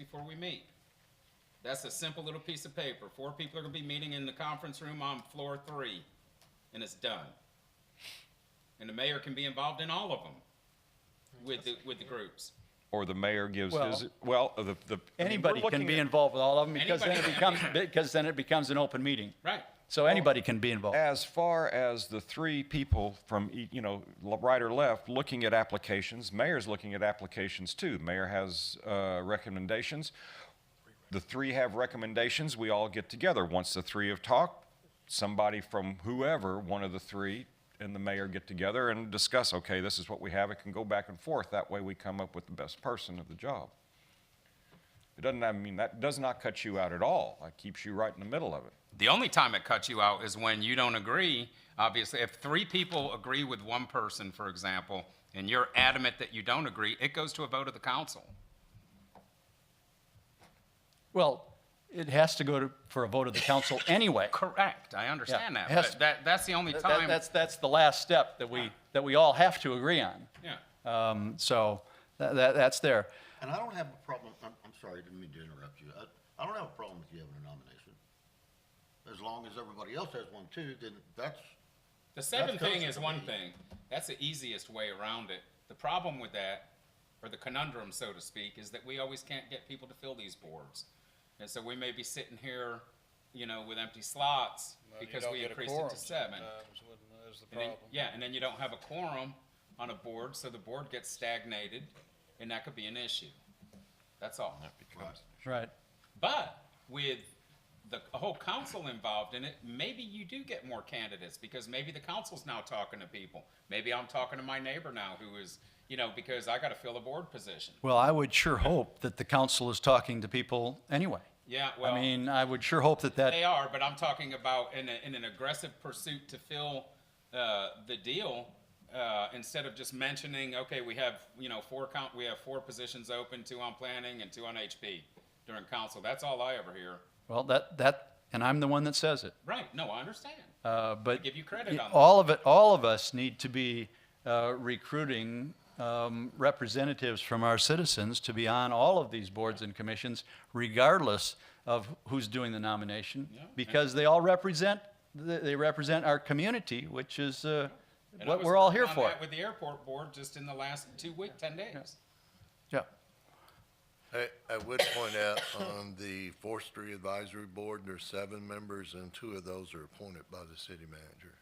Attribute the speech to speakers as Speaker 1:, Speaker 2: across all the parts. Speaker 1: before we meet. That's a simple little piece of paper. Four people are gonna be meeting in the conference room on floor three, and it's done. And the mayor can be involved in all of them with the, with the groups.
Speaker 2: Or the mayor gives
Speaker 3: Well-
Speaker 2: his, well, the, the. I mean, we're
Speaker 3: Anybody can
Speaker 2: looking
Speaker 3: be
Speaker 2: at-
Speaker 3: involved with all of them because then it
Speaker 1: Anybody can
Speaker 3: becomes, because then it becomes an open meeting.
Speaker 1: Right.
Speaker 3: So anybody can be involved.
Speaker 2: As far as the three people from, ea- you know, l- right or left, looking at applications, mayor's looking at applications too. Mayor has uh, recommendations. The three have recommendations. We all get together. Once the three have talked, somebody from whoever, one of the three, and the mayor get together and discuss, okay, this is what we have. It can go back and forth. That way we come up with the best person of the job. It doesn't, I mean, that does not cut you out at all. It keeps you right in the middle of it.
Speaker 1: The only time it cuts you out is when you don't agree. Obviously, if three people agree with one person, for example, and you're adamant that you don't agree, it goes to a vote of the council.
Speaker 3: Well, it has to go to, for a vote of the council anyway.
Speaker 1: Correct, I understand
Speaker 3: Yeah,
Speaker 1: that,
Speaker 3: it has
Speaker 1: but
Speaker 3: to-
Speaker 1: that, that's the only
Speaker 3: That-
Speaker 1: time.
Speaker 3: That's, that's the last step that we, that we all have to agree on.
Speaker 1: Yeah.
Speaker 3: Um, So tha- that, that's there.
Speaker 4: And I don't have a problem, I'm, I'm sorry, didn't mean to interrupt you. I, I don't have a problem with you having a nomination. As long as everybody else has one too, then that's,
Speaker 1: The seven
Speaker 4: That's
Speaker 1: thing is
Speaker 4: constantly.
Speaker 1: one thing. That's the easiest way around it. The problem with that, or the conundrum, so to speak, is that we always can't get people to fill these boards. And so we may be sitting here, you know, with empty slots
Speaker 5: Well, you
Speaker 1: because
Speaker 5: don't
Speaker 1: we
Speaker 5: get a
Speaker 1: increased it
Speaker 5: quorum
Speaker 1: to seven.
Speaker 5: sometimes when there's the
Speaker 1: And then,
Speaker 5: problem.
Speaker 1: yeah, and then you don't have a quorum on a board, so the board gets stagnated, and that could be an issue. That's all.
Speaker 3: Right.
Speaker 1: But with the whole council involved in it, maybe you do get more candidates because maybe the council's now talking to people. Maybe I'm talking to my neighbor now who is, you know, because I got to fill a board position.
Speaker 3: Well, I would sure hope that the council is talking to people anyway.
Speaker 1: Yeah, well,
Speaker 3: I mean, I would sure hope that that,
Speaker 1: they are, but I'm talking about in, a, in an aggressive pursuit to fill uh, the deal. Uh, instead of just mentioning, okay, we have you know four count, we have four positions open, two on planning and two on HP during council. That's all I ever hear.
Speaker 3: well, that, that, and I'm the one that says it.
Speaker 1: Right? No, I understand.
Speaker 3: Uh, But.
Speaker 1: give you credit
Speaker 3: y-
Speaker 1: on that.
Speaker 3: All of it, all of us need to be uh, recruiting um, representatives from our citizens to be on all of these boards and commissions, regardless of who's doing the nomination, because they all represent, th- they represent our community, which is uh,
Speaker 1: And I
Speaker 3: what
Speaker 1: was
Speaker 3: we're all
Speaker 1: working
Speaker 3: here
Speaker 1: on
Speaker 3: for.
Speaker 1: that With the airport board, just in the last two week, ten days.
Speaker 3: Yeah,
Speaker 6: I, I would point out on the forestry advisory board, there's seven members and two of those are appointed by the city manager.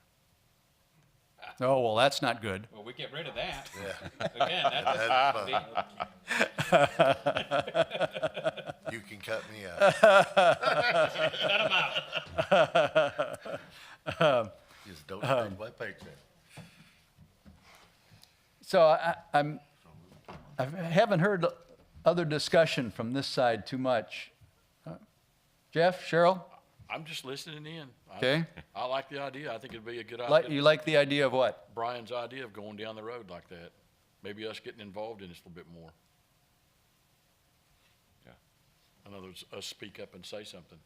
Speaker 3: oh, well, that's not good.
Speaker 1: Well, we get rid of that. Again, that
Speaker 6: That's
Speaker 1: doesn't,
Speaker 6: fine.
Speaker 1: the-
Speaker 6: You can cut me out.
Speaker 4: just don't take my paycheck.
Speaker 3: So I, I'm, I haven't heard other discussion from this side too much. Uh, Jeff, Cheryl,
Speaker 5: I'm just listening in. I-
Speaker 3: Okay.
Speaker 5: I like the idea. I think it'd be a good
Speaker 3: like, you
Speaker 5: idea.
Speaker 3: like the idea of what?
Speaker 5: Brian's idea of going down the road like that. Maybe us getting involved in this a little bit more.
Speaker 2: Yeah.
Speaker 5: In other words, us speak up and say something,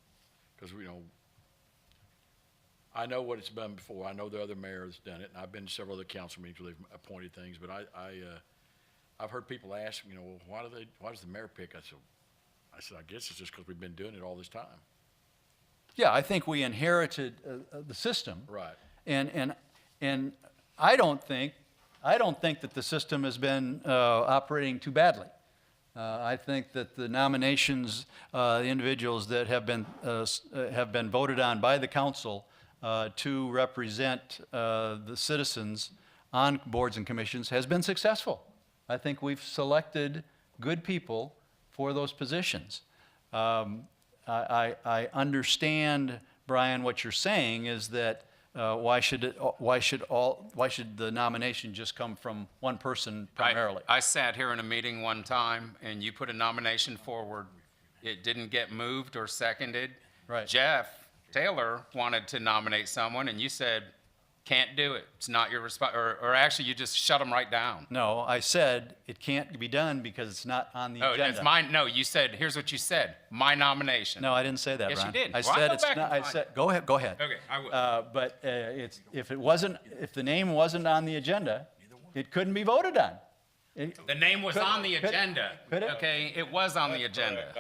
Speaker 5: because we know, I know what it's been before. I know the other mayor has done it, and I've been to several other council meetings where they've appointed things, but I, I, uh, I've heard people ask, you know, well, why do they, why does the mayor pick? I said, I said, I guess it's just because we've been doing it all this time.
Speaker 3: Yeah, I think we inherited uh, uh, the system.
Speaker 5: Right.
Speaker 3: And, and, and I don't think, I don't think that the system has been uh, operating too badly. Uh, I think that the nominations, uh, the individuals that have been, uh, s- uh, have been voted on by the council uh, to represent uh, the citizens on boards and commissions has been successful. I think we've selected good people for those positions. Um, I, I, I understand, Brian, what you're saying is that uh, why should it, why should all why should the nomination just come from one person primarily?
Speaker 1: I I sat here in a meeting one time, and you put a nomination forward. It didn't get moved or seconded.
Speaker 3: Right.
Speaker 1: Jeff Taylor wanted to nominate someone, and you said, can't do it. It's not your response, or, or actually, you just shut them right down.
Speaker 3: no, I said it can't be done because it's not on the
Speaker 1: Oh,
Speaker 3: agenda.
Speaker 1: it's mine, no, you said, here's what you said, my nomination.
Speaker 3: No, I didn't say that,
Speaker 1: Yes, you
Speaker 3: Ron.
Speaker 1: did.
Speaker 3: I
Speaker 1: Well, I'll
Speaker 3: said
Speaker 1: go
Speaker 3: it's
Speaker 1: back
Speaker 3: not.
Speaker 1: and
Speaker 3: I
Speaker 1: find
Speaker 3: said go ahead. Go ahead.
Speaker 1: Okay, I will.
Speaker 3: Uh, but uh, it's if it wasn't if the name wasn't on the agenda, it couldn't be voted on. It-
Speaker 1: The name was
Speaker 3: Could-
Speaker 1: on the
Speaker 3: could-
Speaker 1: agenda.
Speaker 3: could it?
Speaker 1: Okay, it was on the agenda.